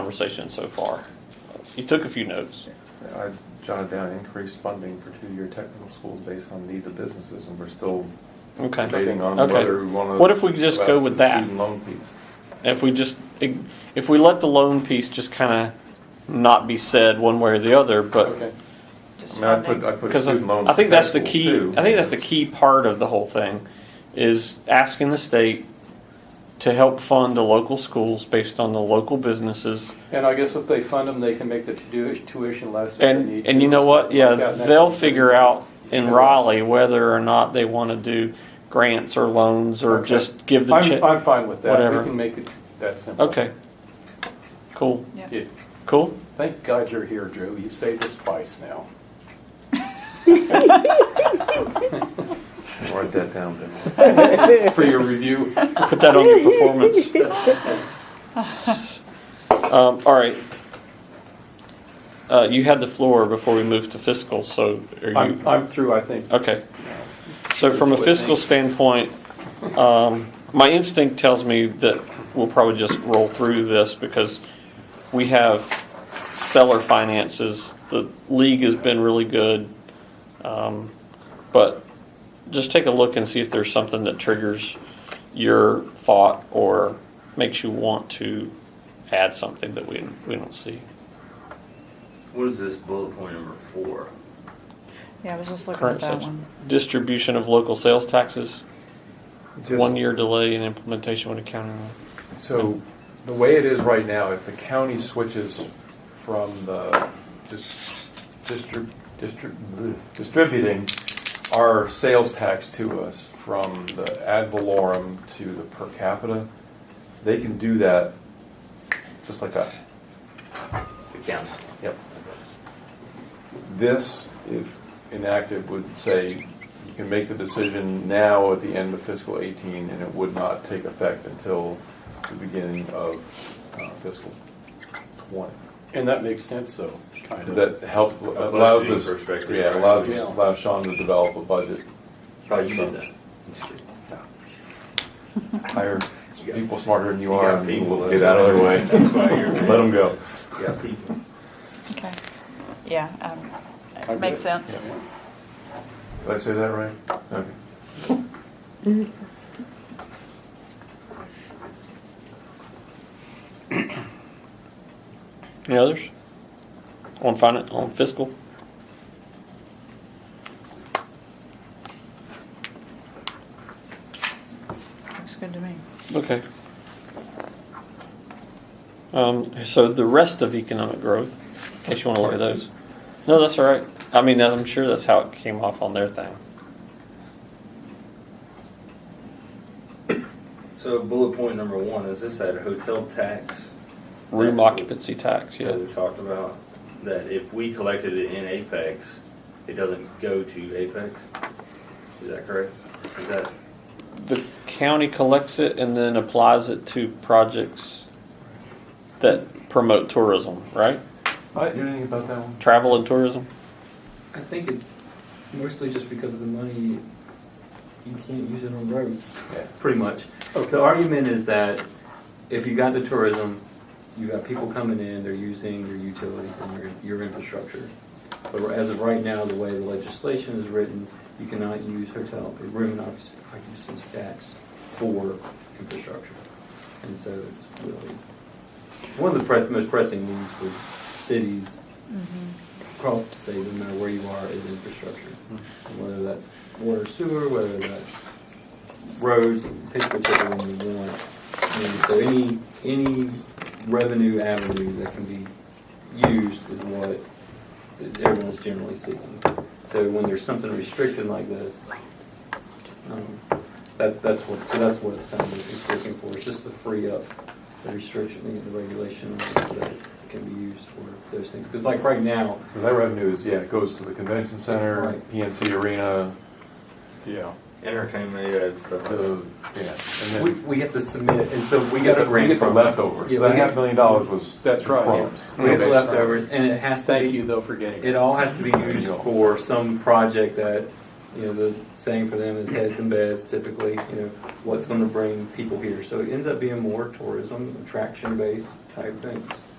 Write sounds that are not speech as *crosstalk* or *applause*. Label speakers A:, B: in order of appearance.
A: conversation so far. You took a few notes.
B: I jotted down increased funding for two-year technical schools based on need of businesses, and we're still
A: Okay.
B: debating on
A: Okay.
B: whether we want to.
A: What if we just go with that?
B: Student loan piece.
A: If we just, if we let the loan piece just kind of not be said one way or the other, but,
B: I
C: Just
B: mean, I put,
C: funding.
B: I put
A: because
B: student loans.
A: I
B: for
A: think
B: tech
A: that's the
B: schools,
A: key,
B: too.
A: I think that's the key part of the whole thing, is asking the state to help fund the local schools based on the local businesses.
D: And I guess if they fund them, they can make the tu- tuition less if they need
A: And,
D: to.
A: and you know
D: or
A: what,
D: something like
A: yeah,
D: that. And
A: they'll
D: that-
A: figure out in
D: Yes.
A: Raleigh whether or not they want to do grants or loans or
D: Okay.
A: just give the check.
D: I'm, I'm fine with that.
A: whatever.
D: We can make it that simple.
A: Okay. Cool.
C: Yeah.
D: Yeah.
A: Cool.
D: Thank God you're here, Drew. You've saved us twice
A: *laughs*
D: now.
B: Write that down, Ben.
D: For your review,
A: Put that on your performance. um, all right. Uh, you had the floor before we moved to fiscal, so are you?
D: I'm, I'm through, I think.
A: Okay. So from a
D: What
A: fiscal
D: thing?
A: standpoint, um, my instinct tells me that we'll probably just roll through this because we have stellar finances. The league has been really good. Um, But just take a look and see if there's something that triggers your thought or makes you want to add something that we, we don't see.
E: What is this bullet point number four?
C: Yeah, I was just looking at
A: Current
C: that
A: sales-
C: one.
A: Distribution of local sales taxes.
B: Just-
A: One year delay in implementation when accounting.
B: So, the way it is right now, if the county switches from the dis- distrib- distrib- bleh, distributing our sales tax to us from the ad valorem to the per capita, they can do that just like that.
E: The county.
B: Yep. This, if enacted, would say you can make the decision now at the end of fiscal 18, and it would not take effect until the beginning of uh, fiscal 20.
D: And that makes sense, though, kind of.
B: Does that help, allows this,
E: budgeting perspective,
B: yeah,
E: right?
B: allows,
D: Yeah.
B: allows Sean to develop a budget,
E: Thought you did that.
B: hire people smarter than you
E: You
B: are,
E: got
B: and
E: people,
B: we'll
E: that's
B: get out of their
E: why-
B: way.
E: *laughs* that's why you're-
B: Let them go.
E: Yeah, people.
C: Okay. Yeah, um,
D: I
C: it makes
D: get it.
C: sense.
D: Yeah.
B: Did I say that right? Okay.
A: Any others? On finance, on fiscal?
C: Looks good to me.
A: Okay. Um, so the rest of economic growth, in case you wanna look at those. No, that's all right. I mean, I'm sure that's how it came off on their thing.
E: So bullet point number one, is this that hotel tax?
A: Room occupancy tax, yeah.
E: That we talked about, that if we collected it in Apex, it doesn't go to Apex? Is that correct? Is that,
A: The county collects it and then applies it to projects that promote tourism, right?
B: You know anything about that one?
A: Travel and tourism?
F: I think it's mostly just because of the money, you can't use it on roads. *laughs* Pretty much. The argument is that if you got the tourism, you got people coming in, they're using your utilities and your, your infrastructure. But as of right now, the way the legislation is written, you cannot use hotel, room occupancy occupancy tax for infrastructure. And so it's really, one of the press, most pressing needs for cities
C: Mm-hmm.
F: across the state, no matter where you are, is infrastructure. Whether that's water, sewer, whether that's roads, pick whichever one you want. And so any, any revenue avenue that can be used is what is everyone's generally seeking. So when there's something restricted like this, um, that, that's what, so that's what it's kind of, it's looking for, it's just to free up the restriction and the regulation so that it can be used for those things. Because like right now,
B: So that revenue is, yeah, it goes to the convention center,
F: Right.
B: PNC Arena, yeah,
E: entertainment, yeah, it's uh, stuff like that.
B: the, yeah,
F: we,
B: and then.
F: we have to submit, and so we
B: We
F: get the grant
B: get the
F: from-
B: leftovers,
F: Yeah,
B: that
F: we
B: half
F: get-
B: million dollars was.
D: That's right.
B: crumbs.
F: We have
B: Okay.
F: leftovers, and it has to
D: Thank
F: be-
D: you, though, for getting
F: It
D: it.
F: all has to be
B: There you
F: used
B: go.
F: for some project that, you know, the saying for them is heads and beds typically, you know, what's gonna bring people here. So it ends up being more tourism, attraction-based type things.